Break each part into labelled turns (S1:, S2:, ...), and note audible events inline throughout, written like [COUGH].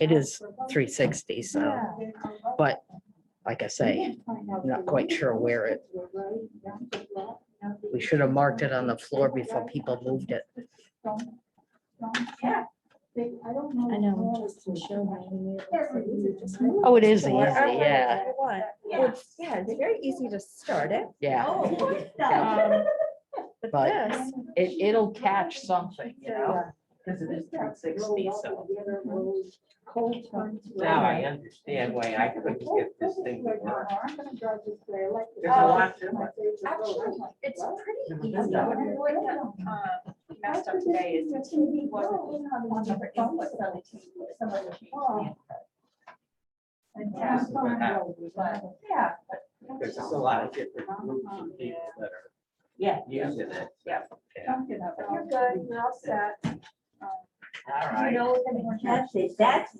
S1: It is three sixty, so, but like I say, not quite sure where it. We should have marked it on the floor before people moved it.
S2: I know.
S1: Oh, it is easy,
S2: Whatever.
S1: yeah,
S2: Yeah,
S3: Well, Yeah, it's very easy to start it,
S1: yeah.
S3: um, [LAUGHS] but
S1: But-
S3: this,
S2: Oh,
S1: It, it'll catch something, you know?
S4: Because it is three sixty, so Mhm. now
S2: Now
S4: I understand why I couldn't get this thing to work. There's
S2: Oh.
S4: a lot to it.
S2: Actually,
S3: it's pretty
S4: This
S3: easy.
S4: stuff.
S2: um, messed up today is the TV wasn't on the inputs on the TV, someone changed
S3: Oh.
S2: the input.
S4: This is what happened.
S2: But, Yeah,
S4: There's just a lot of different groups of people that are
S2: yeah.
S4: using it.
S2: Yeah.
S4: Yeah.
S2: But You're good, you're all set.
S4: All
S2: Do you
S4: right.
S2: know if anyone has
S5: That's it, that's,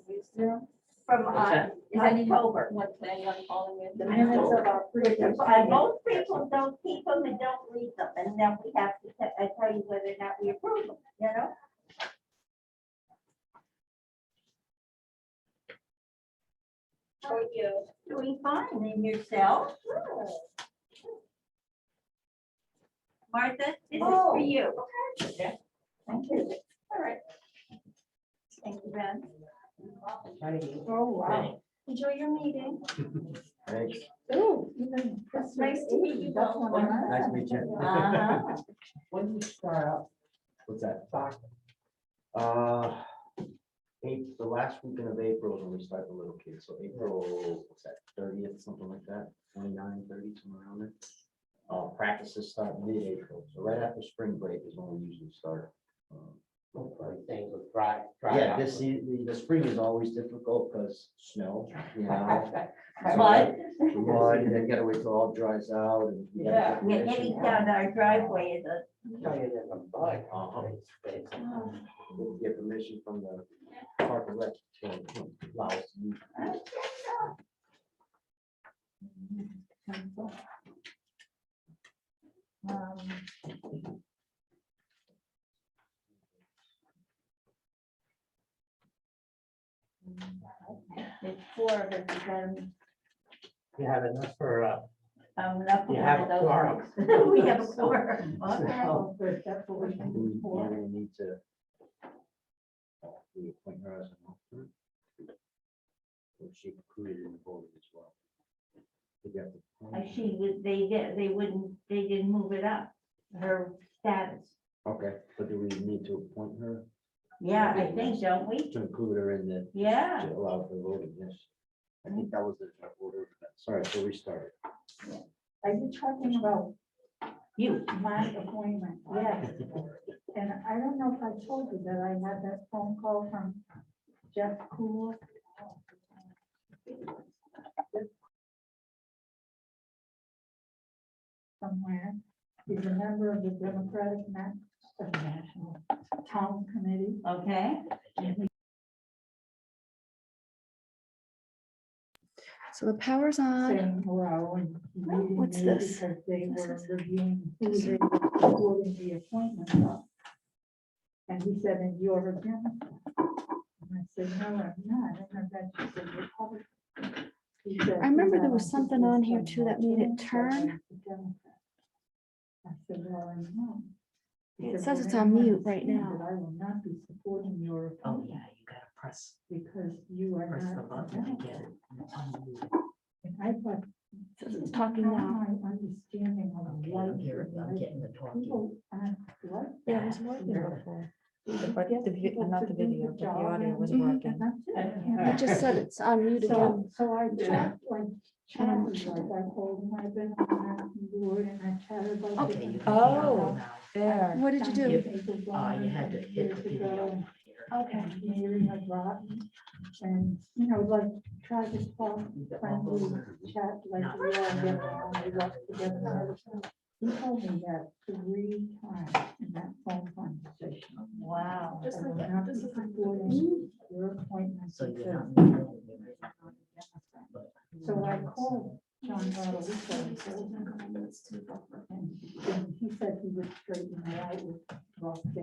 S2: from,
S4: What's
S2: uh,
S4: that?
S2: is October, what's anyone calling it?
S5: the minutes of our freedom, I, most people don't keep them and don't read them, and then we have to, te- I tell you whether or not we approve them, you know? How are you? Doing fine, and yourself? Martha, this is
S2: Oh.
S5: for you.
S2: Thank you. All right. Thank you, Ben.
S5: Oh, wow.
S2: Enjoy your meeting.
S6: Thanks.
S2: Ooh, it's nice to meet you both.
S6: Nice to meet you.
S5: Uh-huh.
S4: [LAUGHS] When you start up,
S6: What's that?
S4: talk
S6: Uh, April, the last weekend of April is when we start the little kids, so April, what's that, thirtieth, something like that, 29, 30, somewhere around there. Uh, practices start mid-April, so right after spring break is when we usually start. Um,
S4: about things with dry. dry
S6: Yeah,
S4: out.
S6: this, se- the, the spring is always difficult because snow,
S4: [LAUGHS]
S6: you know. so
S5: But,
S6: the Mud, and then gotta wait till all dries out and. we gotta
S4: Yeah.
S6: get
S5: we're
S6: permission.
S5: heading down our driveway, the
S4: Tell you there's a bug
S6: Uh-huh.
S4: on its face.
S6: We'll get permission from the park and rec. to allow us to use
S5: Um, four of us, is, um,
S4: You have enough for, uh,
S5: um, enough for
S4: you
S5: one
S4: have
S5: of
S4: a
S5: those.
S4: quorum.
S5: [LAUGHS] We
S4: [LAUGHS]
S5: have a quarter.
S4: So-
S6: I think we may Need to. uh, Reappoint her as an alternate. Or she included in the board as well. Did you have to
S5: Uh,
S6: appoint?
S5: She was, they did, they wouldn't, they didn't move it up, her status.
S6: Okay, but do we need to appoint her
S5: Yeah, I think, don't we?
S6: to include her in the,
S5: Yeah.
S6: to allow for voting, yes? I think that was the order, sorry, so we started.
S2: Are you talking about
S5: You,
S2: my appointment? Yes. And I don't know if I told you that I had that phone call from Jeff Cool. Somewhere, he's a member of the Democratic Na- uh, National Town Committee.
S5: okay?
S3: So the power's on.
S2: saying hello and. meeting
S3: Uh, what's
S2: me
S3: this?
S2: Because they
S3: This
S2: were
S3: is-
S2: reviewing who they were recording the appointment of. And he said, and you're a Democrat. And I said, no, I'm not. And then she said, Republican. He said,
S3: I remember there
S2: "No,
S3: was
S2: I'm
S3: something
S2: just
S3: on here
S2: a
S3: too that made it
S2: Republican,
S3: turn.
S2: but I'm a Democrat." I said, well, I'm not. He said,
S3: It says
S2: "Well,
S3: it's
S2: then
S3: on
S2: you
S3: mute right
S2: understand
S3: now.
S2: that I will not be supporting your
S4: Oh,
S2: appointment
S4: yeah, you gotta press,
S2: because you are
S4: press the
S2: not.
S4: button to
S2: a Democrat."
S4: get it. Unmute.
S2: And I thought,
S3: It says It's talking
S2: how
S3: now.
S2: am I understanding what
S1: Okay,
S2: life
S1: I'm here,
S2: is
S1: I'm
S2: like?
S1: getting the talking.
S2: People aren't like
S3: Yeah, it was
S2: that.
S3: working
S2: Yeah.
S3: before.
S2: People
S7: but
S2: get
S7: the vi-
S2: people
S7: not the
S2: to do
S7: video, but the
S2: job
S7: audio was
S2: and-
S7: working.
S2: and that's it.
S3: It just said it's on mute again.
S2: [LAUGHS] So, so I
S4: Yeah.
S2: talked like chatted, like I told him I've been on that board and I chatted about.
S1: Okay, you
S2: different
S1: can hear
S7: Oh.
S1: them now.
S7: There.
S3: What did you do?
S1: Yeah.
S2: do?
S1: Uh, you had to hit the video here.
S2: Okay. Hearing had rotten and, you know, like try to talk friendly chat like
S1: No.
S2: we all get along, we work together. He told me that three times in that phone conversation.
S5: Wow.
S2: I will not be supporting Your appointment.
S1: So you're
S2: because
S1: not.
S2: so I called John Rodolico and told him. And he said he would straighten it out with Ross